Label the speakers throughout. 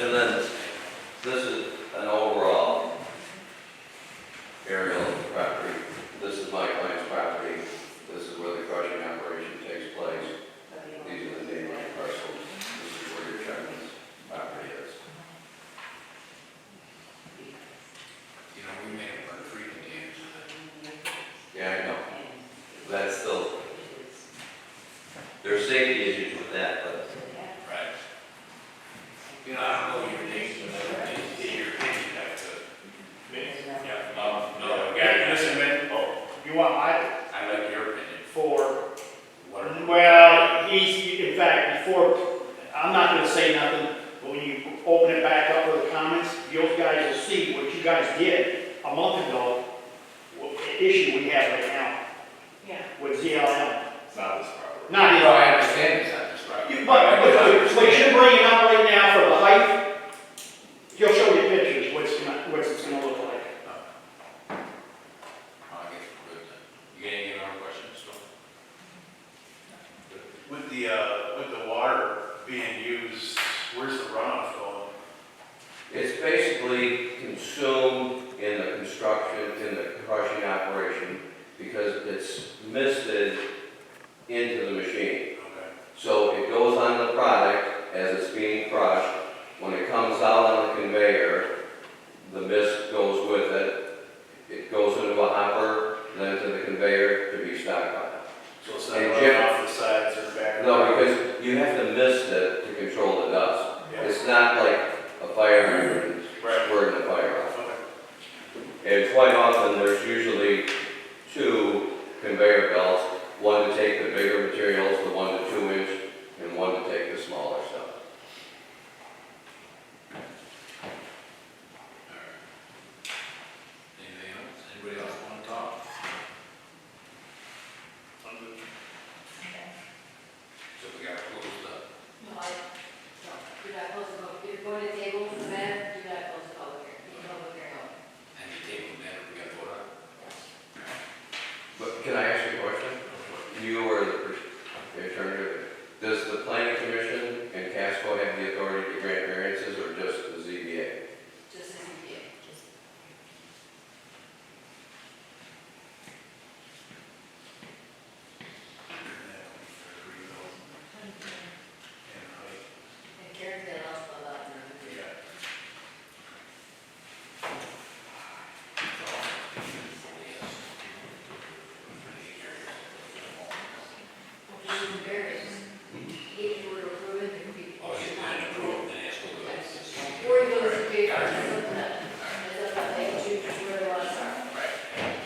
Speaker 1: And then, this is an overall aerial of the property. This is my client's property, this is where the crushing operation takes place. These are the neighboring parcels, this is where your chairman's property is.
Speaker 2: You know, we made a lot of freaking games.
Speaker 1: Yeah, I know, that's still, there's safety issues with that, but
Speaker 2: Right. You know, I don't know your names, but I did hear your opinion after. Yeah, no, no,
Speaker 3: Yeah,
Speaker 2: yeah,
Speaker 3: listen,
Speaker 2: listen,
Speaker 3: man, oh, you want my,
Speaker 2: I like your opinion.
Speaker 3: for,
Speaker 2: What are-
Speaker 3: well, he's, in fact, before, I'm not gonna say nothing, but when you open it back up for the comments, you guys will see what you guys did a month ago, what the issue we have right now
Speaker 4: Yeah.
Speaker 3: with ZLM.
Speaker 2: It's not this property.
Speaker 3: Not
Speaker 2: No, I
Speaker 3: even,
Speaker 2: understand it's not this property.
Speaker 3: you, but, but, but what you're bringing up right now for the height, he'll show you pictures, what's gonna, what's it's gonna look like.
Speaker 2: I guess we're good then. You got any other questions, Tom?
Speaker 5: With the, uh, with the water being used, where's the runoff going?
Speaker 1: It's basically consumed in the construction, in the crushing operation, because it's misted into the machine.
Speaker 5: Okay.
Speaker 1: So it goes on the product as it's being crushed. When it comes out on the conveyor, the mist goes with it. It goes into a hopper, then to the conveyor to be stockpiled.
Speaker 5: So it's
Speaker 1: And
Speaker 5: not
Speaker 1: Jim-
Speaker 5: running off the sides or back?
Speaker 1: No, because you have to mist it to control the dust.
Speaker 5: Yeah.
Speaker 1: It's not like a fire hydrant,
Speaker 5: Right.
Speaker 1: squirting the fire off.
Speaker 5: Okay.
Speaker 1: And quite often, there's usually two conveyor belts, one to take the bigger materials, the one to two inch, and one to take the smaller stuff.
Speaker 2: Anything else? Anybody else want to talk? So we got closed up.
Speaker 4: No, I, no, do not close the vote. If you're going to table the matter, do not close the public hearing. You can open your own.
Speaker 2: And you table that, we got voted on.
Speaker 1: But can I ask you a question? You were the pers- the attorney, does the planning commission and Casco have the authority to grant variances or just the ZBA?
Speaker 4: Just as you did. And Karen did also about
Speaker 5: Yeah.
Speaker 4: it. Which is embarrassing. If you were to approve it, it would be.
Speaker 2: Oh, he's been approved, then it's all good.
Speaker 4: Or you go to the paper, it's up to them. It's up to them. They choose where they want to start.
Speaker 2: Right.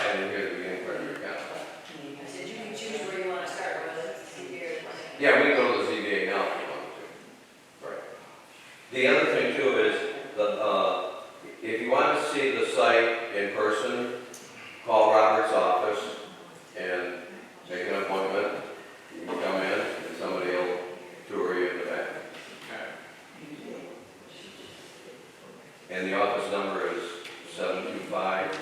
Speaker 1: I didn't hear the beginning part of your comment.
Speaker 4: I said, you can choose where you want to start, whether it's the year or the.
Speaker 1: Yeah, we can go to the ZBA now if you want to. Right. The other thing too is, the, uh, if you want to see the site in person, call Robert's office and make an appointment. You can come in and somebody will tour you in the back. And the office number is seven two five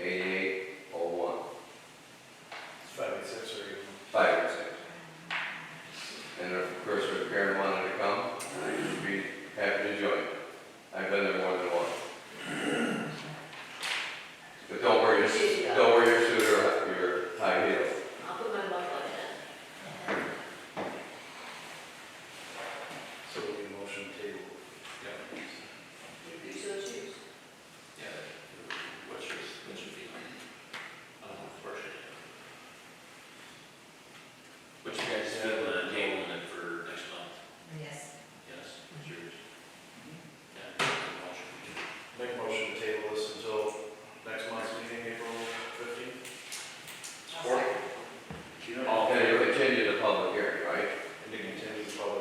Speaker 1: eighty-eight oh one,
Speaker 5: It's five and six or even.
Speaker 1: five and six. And of course, if Karen wanted to come, I'd be happy to join. I've been there more than once. But don't wear your, don't wear your suit or your high heels.
Speaker 4: I'll put my buckle on it.
Speaker 5: So we need a motion table.
Speaker 2: Yeah.
Speaker 4: If you so choose.
Speaker 2: Yeah. What's your, what's your uh,